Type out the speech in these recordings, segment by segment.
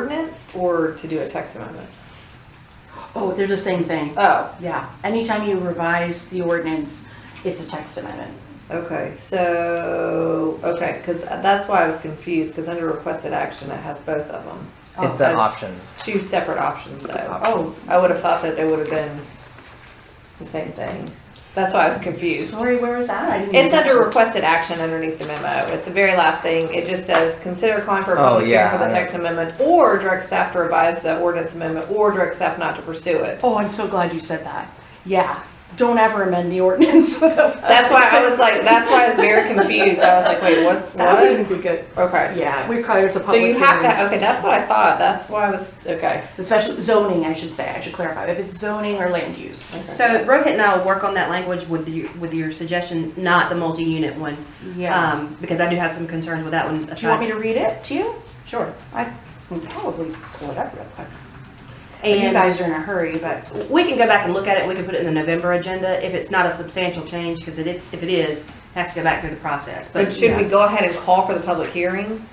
ordinance or to do a text amendment? Oh, they're the same thing. Oh, Yeah, anytime you revise the ordinance, it's a text amendment. okay, so, okay, because that's why I was confused, because under requested action, it has both of them. It's Oh, an as- options. Two separate options though. Oh, Options. I would have thought that it would have been the same thing. That's why I was confused. Sorry, where was that? I didn't It's even- under requested action underneath the memo. It's the very last thing. It just says, consider calling for a Oh, public hearing yeah, for the I know. text amendment or direct staff to revise the ordinance amendment or direct staff not to pursue it. Oh, I'm so glad you said that. Yeah, don't ever amend the ordinance. That's why I was like, that's why I was very confused. I was like, wait, what's That wouldn't what? be good. Okay. Yeah, it requires a So public you have hearing. to, okay, that's what I thought. That's why I was, okay. Especially zoning, I should say, I should clarify, if it's zoning or land use. Um, So Rohit and I will work on that language with you, with your suggestion, not the multi-unit one. Yeah. Um, because I do have some concerns with that one. Do you want me to read it to you? Sure. I can probably pull it up real quick. You guys And are in a hurry, but we can go back and look at it. We can put it in the November agenda if it's not a substantial change, because it, if it is, it has to go back through the process. But should we yes. go ahead and call for the public hearing?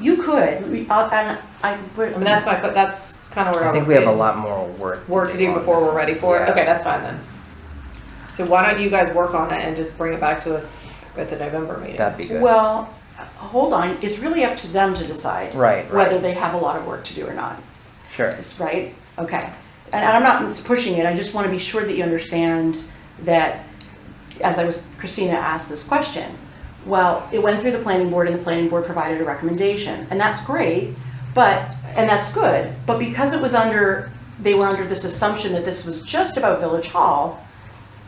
you could, We- I'll- and I, we're. I mean, that's my, but that's kind of where I I was. think we have a getting- lot more work. work to do on before this we're one. ready for it. Yeah. Okay, that's fine then. So why don't you guys work on it and just bring it back to us at the November meeting? That'd be good. Well, hold on, it's really up to them to decide. Right, right. Whether they have a lot of work to do or not, Sure. It's- right? Okay. And I'm not pushing it, I just want to be sure that you understand that, as I was, Christina asked this question. Well, it went through the planning board and the planning board provided a recommendation, and that's great, but, and that's good. But because it was under, they were under this assumption that this was just about Village Hall,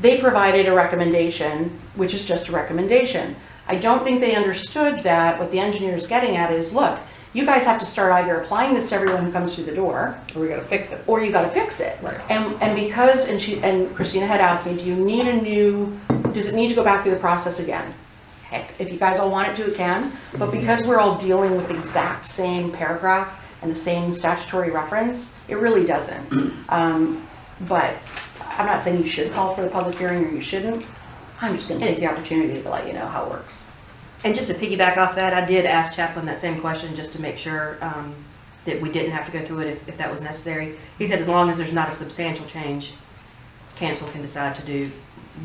they provided a recommendation, which is just a recommendation. I don't think they understood that what the engineer is getting at is, look, you guys have to start either applying this to everyone who comes through the door, We're gonna fix it. or you gotta fix it. Right. And, and because, and she, and Christina had asked me, do you need a new, does it need to go back through the process again? Heck, if you guys all want it to, it can, but because we're all dealing with the exact same paragraph and the same statutory reference, it really doesn't. Um, but I'm not saying you should call for the public hearing or you shouldn't, I'm just gonna take the opportunity to let you know how it works. And just to piggyback off that, I did ask Chaplin that same question just to make sure um, that we didn't have to go through it if, if that was necessary. He said as long as there's not a substantial change, council can decide to do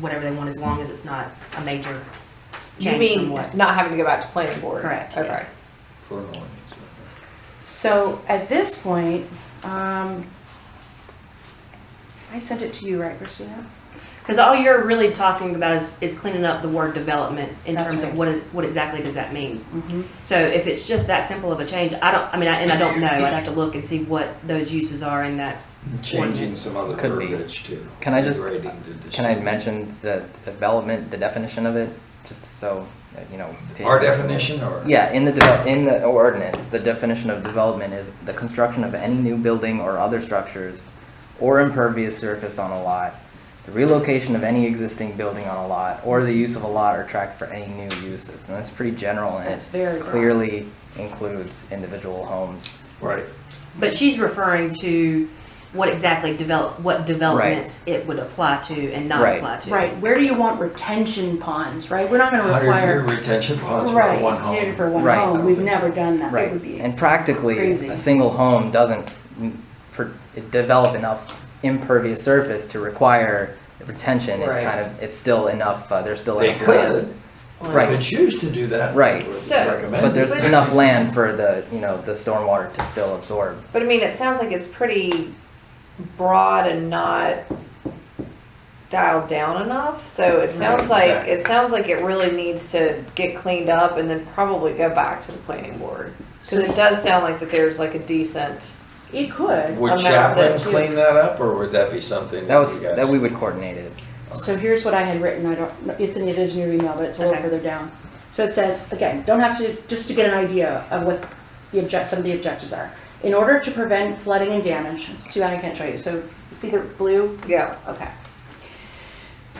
whatever they want as long as it's not a major You change mean from what. not having to go back to planning board? Correct, Okay. yes. For an ordinance, okay. So at this point, um, I sent it to you, right, Christina? Because all you're really talking about is, is cleaning up the word development in That's terms right. of what is, what exactly does that mean? Mm-hmm. So if it's just that simple of a change, I don't, I mean, I- and I don't know, I'd have to look and see what those uses are in that. Changing some other Could be. verbiage too. Can I just- Grading to Can I distinguish. mention the development, the definition of it, just so that, you know? to- Our definition or? Yeah, in the develop, in the ordinance, the definition of development is the construction of any new building or other structures or impervious surface on a lot, the relocation of any existing building on a lot, or the use of a lot or tract for any new uses. And that's pretty general and That's it very broad. clearly includes individual homes. Right. But she's referring to what exactly develop, what developments it would apply to and not Right. apply to. Right, where do you want retention ponds, right? We're not gonna Hundred year require. retention bonds for Right, one yeah, home. For one Right. home, we've never done that, it Right. would be. And practically, crazy. a single home doesn't m- pr- it develop enough impervious surface to require retention. It's Right. kind of, it's still enough, uh, there's still They enough land. could, they Right. could choose to do that. Right. Would So- recommend But there's But- enough land for the, you know, the stormwater to still absorb. But I mean, it sounds like it's pretty broad and not dialed down enough. So it sounds Right, like, it sounds like it really needs to get cleaned up and then probably go back to the planning board. Because it does sound like that there's like a decent, It could, Would amount Chaplin that you- clean that up or would that be something That that you was, that we guys? would coordinate it. so here's what I had written, I don't, no, it's in, it is in your email, but it's a little Okay. further down. So it says, again, don't have to, just to get an idea of what the object, some of the objectives are. In order to prevent flooding and damage, it's too bad I can't show you, so see the blue? yeah. Okay.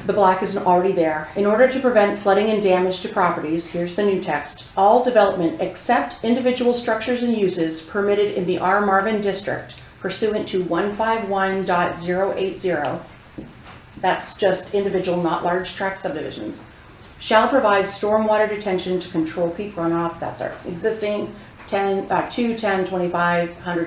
The black isn't already there. In order to prevent flooding and damage to properties, here's the new text. All development except individual structures and uses permitted in the R Marvin district pursuant to 151.080, that's just individual, not large tract subdivisions, shall provide stormwater detention to control peak runoff, that's our existing ten, uh, two, ten, twenty-five, hundred